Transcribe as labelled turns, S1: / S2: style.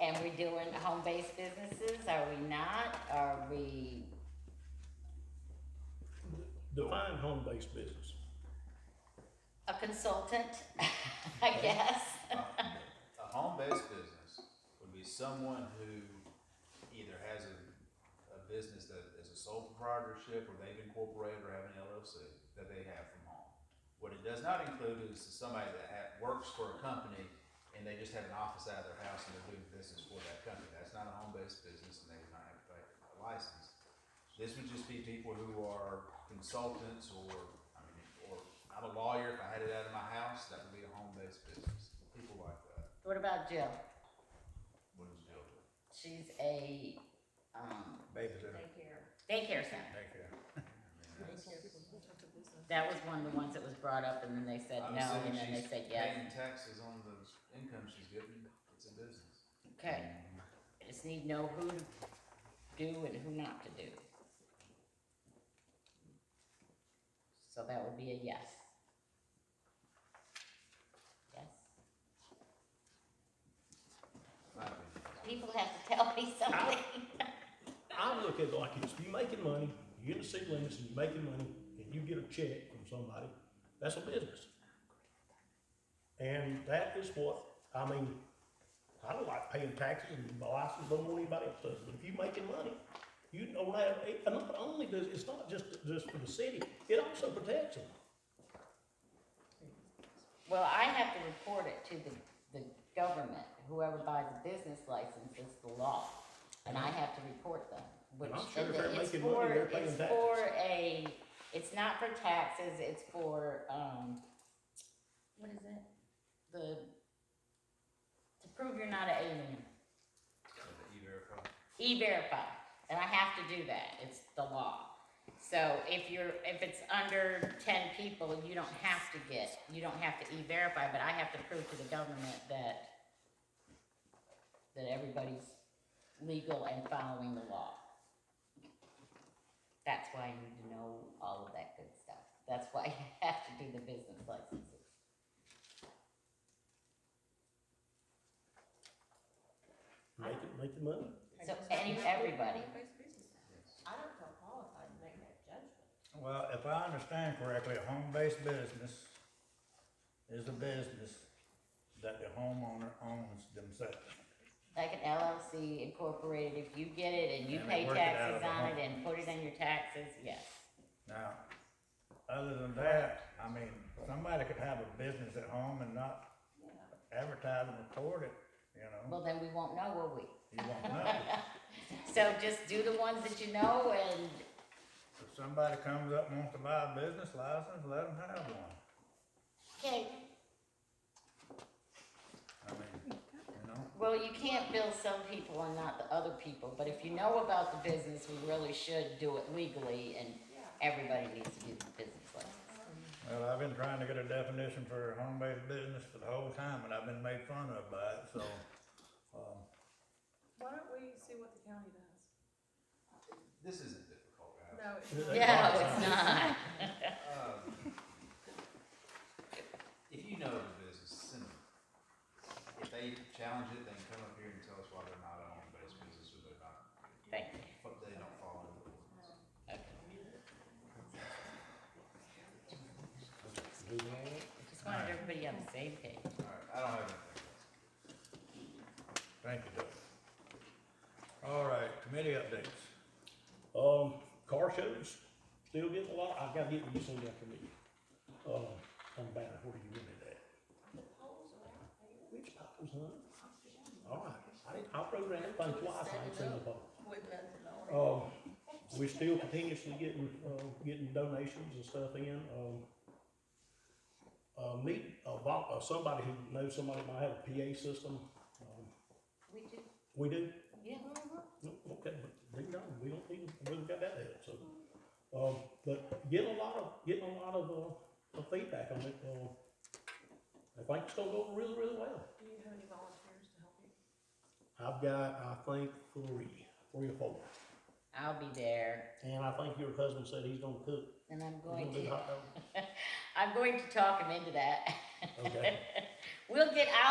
S1: And we're doing home-based businesses, are we not? Are we,
S2: Define home-based business.
S1: a consultant, I guess?
S3: A home-based business would be someone who either has a, a business that is a sole proprietorship, or they've incorporated, or have an LLC that they have from home. What it does not include is somebody that ha works for a company, and they just have an office out of their house and they're doing business for that company, that's not a home-based business, and they would not have to pay a license. This would just be people who are consultants, or, I mean, or, I'm a lawyer, if I had it out of my house, that would be a home-based business, people like that.
S1: What about Jill?
S3: What is Jill do?
S1: She's a, um,
S3: Babysitter.
S1: daycare center. That was one of the ones that was brought up, and then they said
S3: I'm
S1: no, and
S3: assuming
S1: then they
S3: she's
S1: said yes.
S3: Paying taxes on the income she's getting, it's a business.
S1: Okay, just need to know who to do and who not to do. So that would be a yes. Yes.
S3: My opinion.
S1: People have to tell me something.
S2: I look at it like this, you making money, you're in the city limits and you're making money, and you get a check from somebody, that's a business. And that is what, I mean, I don't like paying taxes and my license, don't want anybody else does, but if you making money, you don't have, and not only does, it's not just, just for the city, it also protects them.
S1: Well, I have to report it to the, the government, whoever buys a business license, it's the law, and I have to report them, which,
S2: I'm sure
S1: and
S2: if they're
S1: it's
S2: making money,
S1: for,
S2: they're paying
S1: it's
S2: taxes.
S1: for a, it's not for taxes, it's for, um, what is it? The, to prove you're not an alien,
S3: So the E-Verify.
S1: E-Verify, and I have to do that, it's the law. So if you're, if it's under ten people, you don't have to get, you don't have to E-Verify, but I have to prove to the government that, that everybody's legal and following the law. That's why you need to know all of that good stuff, that's why you have to do the business licenses.
S2: Making, making money,
S1: So any, everybody,
S4: I don't feel qualified to make that judgment.
S5: Well, if I understand correctly, a home-based business is a business that the homeowner owns themselves.
S1: like an LLC incorporated, if you get it and you
S5: And they
S1: pay
S5: work it out
S1: taxes
S5: of the
S1: on it
S5: home.
S1: and put it on your taxes, yes.
S5: Now, other than that, I mean, somebody could have a business at home and not advertise and record it, you know?
S1: Well, then we won't know, will we?
S5: You won't know.
S1: So just do the ones that you know and,
S5: If somebody comes up and wants to buy a business license, let them have one.
S1: okay,
S5: I mean, you know?
S1: well, you can't bill some people and not the other people, but if you know about the business, we really should do it legally and everybody needs to do the business license.
S5: Well, I've been trying to get a definition for a home-based business for the whole time, and I've been made fun of by it, so, um,
S4: Why don't we see what the county does?
S3: This isn't difficult, guys.
S4: No, it's not.
S5: They
S1: Yeah,
S5: are
S1: it's not.
S3: Um, If you know the business, send them. If they challenge it, then come up here and tell us why they're not a home-based business, or they're not,
S1: Thank you.
S3: but they don't follow the ordinance.
S1: Just wanted everybody on the same page.
S3: Alright, I don't have anything else.
S5: Thank you, Doug. All right, committee updates.
S2: Um, car shows, still getting a lot, I gotta get you some after me. Um, I'm bad, where do you live at? Which poles, huh? All right, I, didn't- I programmed it by twice, I ain't seen the pole.
S4: With nothing on it.
S2: Um, we still continuously getting, uh, getting donations and stuff in, um. Uh, meet, uh, vol- uh, somebody who knows somebody might have a PA system, um,
S1: We do,
S2: we do,
S1: yeah.
S2: no, Okay, but they know, we don't need, we don't got that yet, so. Um, but getting a lot of, getting a lot of, uh, of feedback on it, um, I think it's gonna go really, really well.
S4: Do you have any volunteers to help you?
S2: I've got, I think, three, three or four,
S1: I'll be there.
S2: and I think your husband said he's gonna cook,
S1: And I'm
S2: he's
S1: going
S2: gonna do
S1: to,
S2: hot dogs.
S1: I'm going to talk him into that.
S2: Okay.
S1: We'll get, i